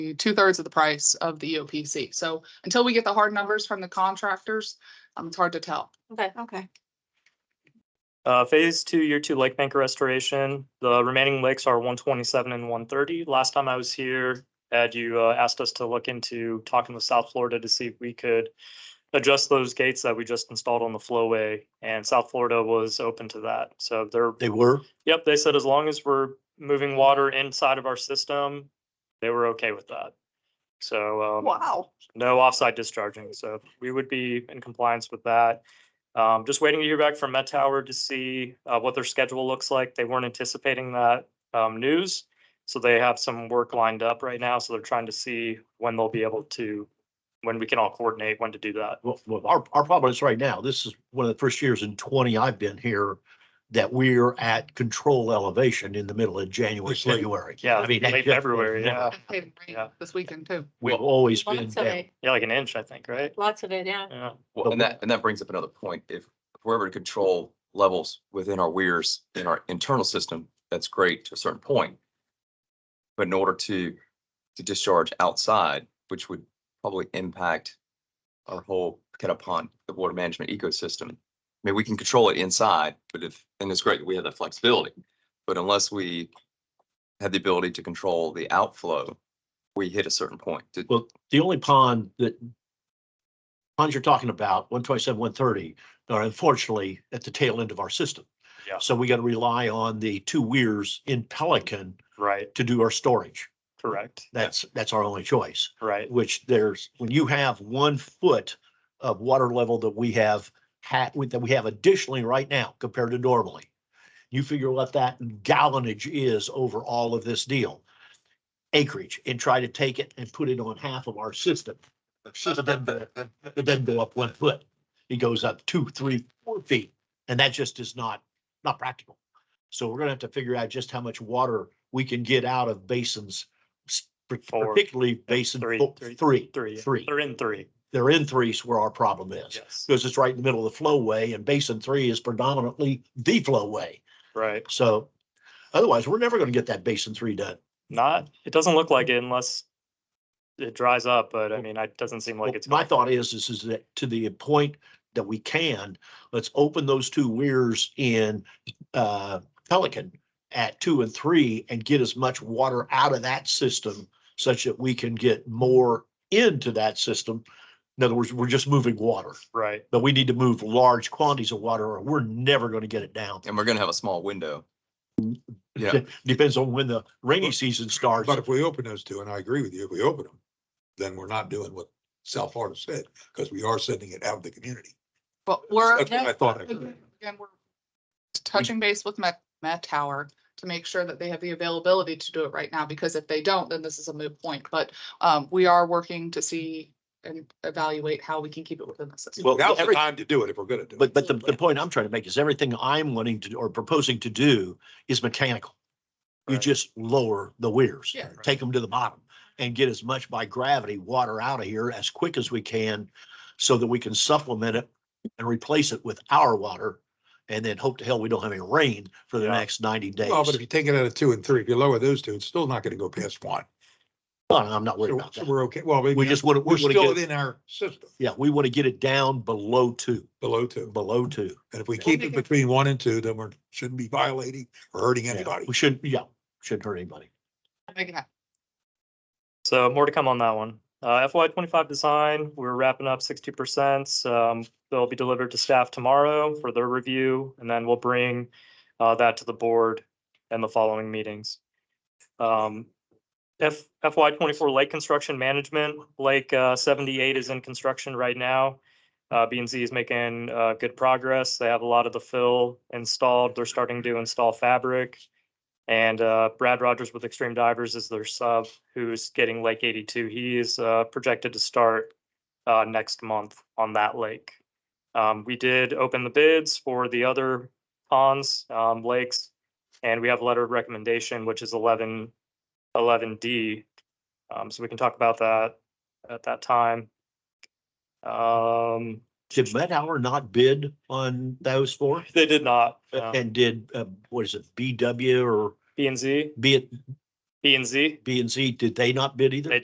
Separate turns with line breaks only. two thirds of the price of the E EOPC. So until we get the hard numbers from the contractors, um, it's hard to tell.
Okay.
Okay.
Uh, phase two, year two lake banker restoration. The remaining lakes are one twenty-seven and one thirty. Last time I was here, Ed, you uh, asked us to look into talking with South Florida to see if we could adjust those gates that we just installed on the flowway, and South Florida was open to that. So they're,
They were?
yep, they said as long as we're moving water inside of our system, they were okay with that. So, um,
Wow.
no offsite discharging, so we would be in compliance with that. Um, just waiting to hear back from Met Tower to see, uh, what their schedule looks like. They weren't anticipating that, um, news. So they have some work lined up right now, so they're trying to see when they'll be able to, when we can all coordinate when to do that.
Well, well, our, our problem is right now, this is one of the first years in twenty I've been here that we're at control elevation in the middle of January,
Which is-
February.
Yeah,
I mean, that
late
just-
February, yeah.
Hey, rain
Yeah.
This weekend too.
We've always been
Lots of
down.
it,
Yeah, like an inch, I think, right?
lots of it, yeah.
Yeah,
Well, and that, and that brings up another point. If if we're able to control levels within our weirs in our internal system, that's great to a certain point. But in order to, to discharge outside, which would probably impact our whole kind of pond, the water management ecosystem. I mean, we can control it inside, but if, and it's great that we have that flexibility, but unless we have the ability to control the outflow, we hit a certain point. To-
Well, the only pond that ponds you're talking about, one twenty-seven, one thirty, are unfortunately at the tail end of our system.
Yeah.
So we got to rely on the two weirs in Pelican
right,
to do our storage.
correct,
That's, that's our only choice.
right,
which there's, when you have one foot of water level that we have had, that we have additionally right now compared to normally. You figure what that gallonage is over all of this deal. Acreage and try to take it and put it on half of our system. It doesn't go- it doesn't go up one foot. It goes up two, three, four feet. And that just is not, not practical. So we're gonna have to figure out just how much water we can get out of basins. s-
Four.
Particularly basin
Three.
fo-
Three.
three,
three,
three.
they're in three,
They're in threes where our problem is.
yes,
Because it's right in the middle of the flowway and basin three is predominantly the flowway.
right.
So otherwise, we're never gonna get that basin three done.
Not, it doesn't look like it unless it dries up, but I mean, it doesn't seem like it's.
My
going
thought
to.
is, is, is that to the point that we can, let's open those two weirs in uh Pelican at two and three and get as much water out of that system such that we can get more into that system. In other words, we're just moving water,
Right,
but we need to move large quantities of water or we're never going to get it down.
And we're gonna have a small window. Yeah.
Depends on when the rainy season starts.
But if we open those two, and I agree with you, if we open them, then we're not doing what South Florida said, because we are sending it out of the community.
But we're.
That's what I thought. I heard.
Again, we're touching base with Met, Met Tower to make sure that they have the availability to do it right now, because if they don't, then this is a moot point. But um, we are working to see and evaluate how we can keep it within the system.
Well,
Now's the
every-
time to do it if we're gonna do it.
But, but the, the point I'm trying to make is everything I'm wanting to, or proposing to do is mechanical. You
Right.
just lower the weirs,
Yeah.
take them to the bottom and get as much by gravity water out of here as quick as we can so that we can supplement it and replace it with our water. And then hope to hell we don't have any rain for the
Yeah.
next ninety days.
Well, but if you take it out of two and three, if you lower those two, it's still not gonna go past one.
Well, I'm not worried
So
about
so
that.
we're okay. Well, we
We just want to,
we're
we want to
still
get, it-
within our system
yeah, we want to get it down below two,
below two.
below two.
And if we
Yeah.
keep it between one and two, then we are shouldn't be violating or hurting
Yeah,
anybody.
We shouldn't, yeah, shouldn't hurt anybody.
Make it happen.
so more to come on that one. Uh, FY twenty-five design, we're wrapping up sixty percent. Um, they'll be delivered to staff tomorrow for their review, and then we'll bring uh, that to the board in the following meetings. Um, F, FY twenty-four lake construction management, Lake uh, seventy-eight is in construction right now. Uh, B and Z is making uh, good progress. They have a lot of the fill installed. They're starting to install fabric. And uh, Brad Rogers with Extreme Divers is their sub who's getting Lake 82. He is uh, projected to start uh, next month on that lake. Um, we did open the bids for the other ponds, um, lakes, and we have a letter of recommendation, which is 11, 11D. Um, so we can talk about that at that time. Um,
Did Medauer not bid on those four?
they did not. Um,
And did, uh, what is it, BW or
B and Z,
B,
B and Z.
B and Z, did they not bid either?
They